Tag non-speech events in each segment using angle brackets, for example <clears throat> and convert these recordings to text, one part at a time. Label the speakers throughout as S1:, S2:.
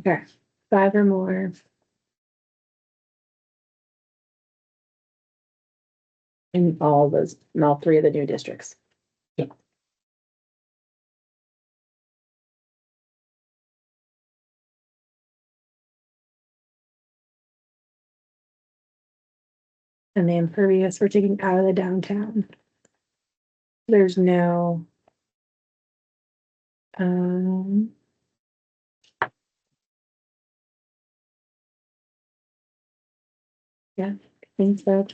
S1: Okay, five or more. In all those, in all three of the new districts.
S2: Yep.
S1: And the impervious, we're taking out of the downtown. There's no. Um. Thanks, Deb.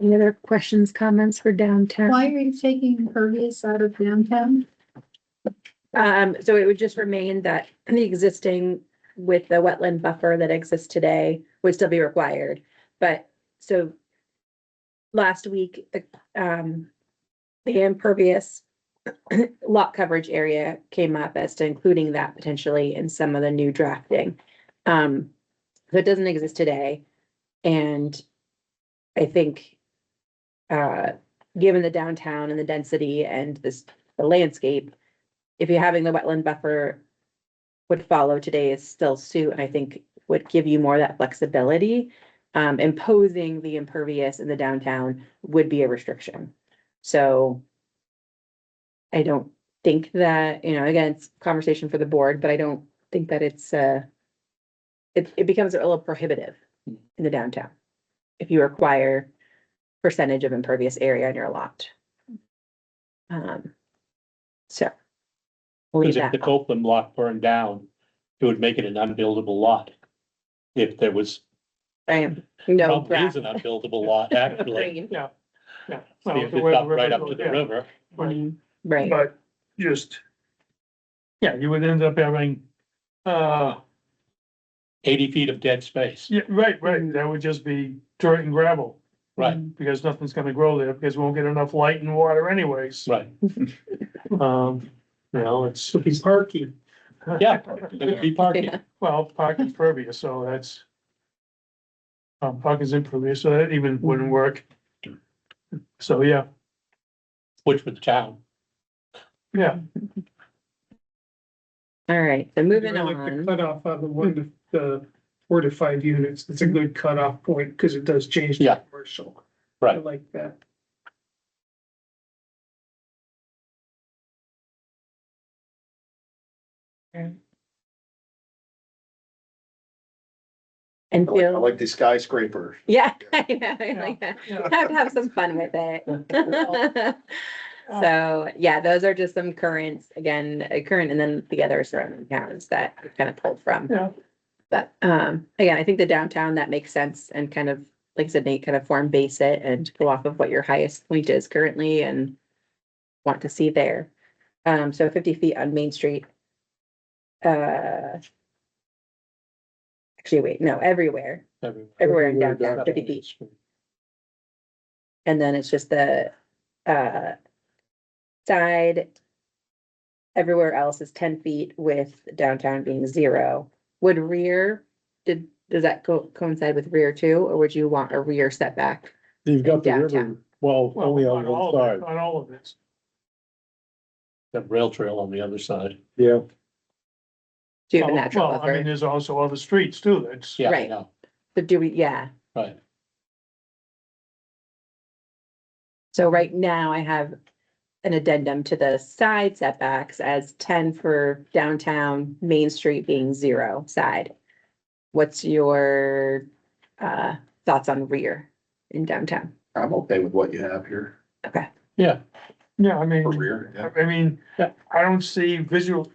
S1: Any other questions, comments for downtown?
S3: Why are you taking impervious out of downtown?
S1: Um, so it would just remain that the existing with the wetland buffer that exists today would still be required, but so last week, the, um, the impervious <clears throat> lot coverage area came up as to including that potentially in some of the new drafting. Um, so it doesn't exist today. And I think, uh, given the downtown and the density and this, the landscape, if you're having the wetland buffer would follow today is still suit, and I think would give you more of that flexibility. Um, imposing the impervious in the downtown would be a restriction. So I don't think that, you know, again, it's conversation for the board, but I don't think that it's, uh, it, it becomes a little prohibitive in the downtown if you require percentage of impervious area in your lot. Um, so. we'll leave
S2: Because
S1: that
S2: if the Copeland block burned down, it would make it an unbuildable lot. If there was,
S1: I am, no,
S2: probably is an
S1: <laughs>
S2: unbuildable lot, actually.
S1: green,
S4: Yeah, yeah.
S2: See,
S4: Well,
S2: If
S4: the
S2: it's
S4: way the
S2: up right up to
S4: goes,
S2: the
S4: yeah,
S2: river,
S4: right.
S1: right,
S4: But just, yeah, you would end up having, uh,
S2: eighty feet of dead space,
S4: yeah, right, right, that would just be dirt and gravel.
S2: right,
S4: Because nothing's gonna grow there, because we won't get enough light and water anyways.
S2: right,
S4: Um, you know, it's.
S5: It'll be parking.
S2: yeah, it would be parking,
S1: Yeah.
S4: <laughs> Well, parking's pervious, so that's. Um, parking's impervious, so that even wouldn't work. So, yeah,
S2: which was town.
S4: yeah,
S1: all right, so moving
S5: I like the
S1: on,
S5: Cutoff on the one, to- the four to five units, it's a good cutoff point, because it does change. to
S2: Yeah.
S5: Commercial. I
S2: Right.
S5: like that.
S1: and
S6: I like- I
S1: feel,
S6: like the skyscraper.
S1: yeah, <laughs> I know, I like that. Have, have some fun with <laughs> it. So, yeah, those are just some currents, again, uh, current and then the other surrounding towns that we kind of pulled from.
S4: Yeah.
S1: But, um, again, I think the downtown, that makes sense and kind of, like I said, Nate, kind of form base it and go off of what your highest point is currently and want to see there. Um, so fifty feet on Main Street. Uh. Actually, wait, no, everywhere.
S2: everywhere.
S1: Everywhere in downtown, 50 feet. And then it's just the, uh, side. Everywhere else is ten feet with downtown being zero. Would rear, did, does that co- coincide with rear too, or would you want a rear setback?
S7: You've got the river,
S1: Downtown.
S7: well,
S4: well,
S7: only
S4: on
S7: on
S4: all
S7: one
S4: of
S7: side,
S4: it, on all of this.
S2: The rail trail on the other side,
S7: yeah.
S1: Do you have a
S4: Well,
S1: natural
S4: well, I mean,
S1: buffer?
S4: there's also other streets too, that's,
S2: yeah, I
S1: Right.
S2: know,
S1: So do we, yeah,
S2: right,
S1: so right now I have an addendum to the side setbacks as ten for downtown, Main Street being zero side. What's your, uh, thoughts on rear in downtown?
S6: I'm okay with what you have here
S1: Okay.
S2: yeah,
S4: yeah, I
S6: for
S4: mean,
S6: rear. yeah.
S4: I mean,
S2: Yeah.
S4: I don't see visual.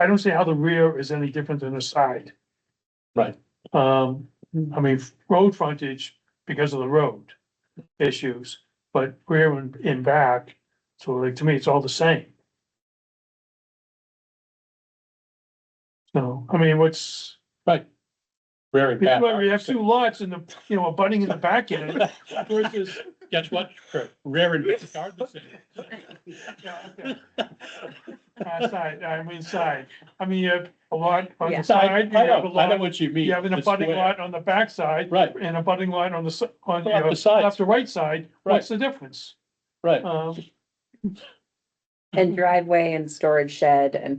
S4: I don't see how the rear is any different than the side.
S2: Right.
S4: Um, I mean, road frontage because of the road issues, but rear and, and back, so like, to me, it's all the same. So, I mean, what's,
S2: very
S4: we
S2: bad.
S4: have two lots in the, you know, abutting in the back end
S2: <laughs>
S4: versus.
S2: Guess what, rare and back are the same.
S4: Yeah, okay. Uh, Side, I mean side. I mean, you have a lot on
S1: Yeah.
S4: the
S2: I, I
S4: side, you have a
S2: know, I know
S4: lot,
S2: what you mean.
S4: you have an
S2: the
S4: abutting
S2: square.
S4: lot on the backside
S2: Right,
S4: and a budding line on the, s- on, you
S2: Off
S4: know,
S2: the sides.
S4: left to right side. What's the difference?
S2: right.
S4: Um,
S1: And driveway and storage shed and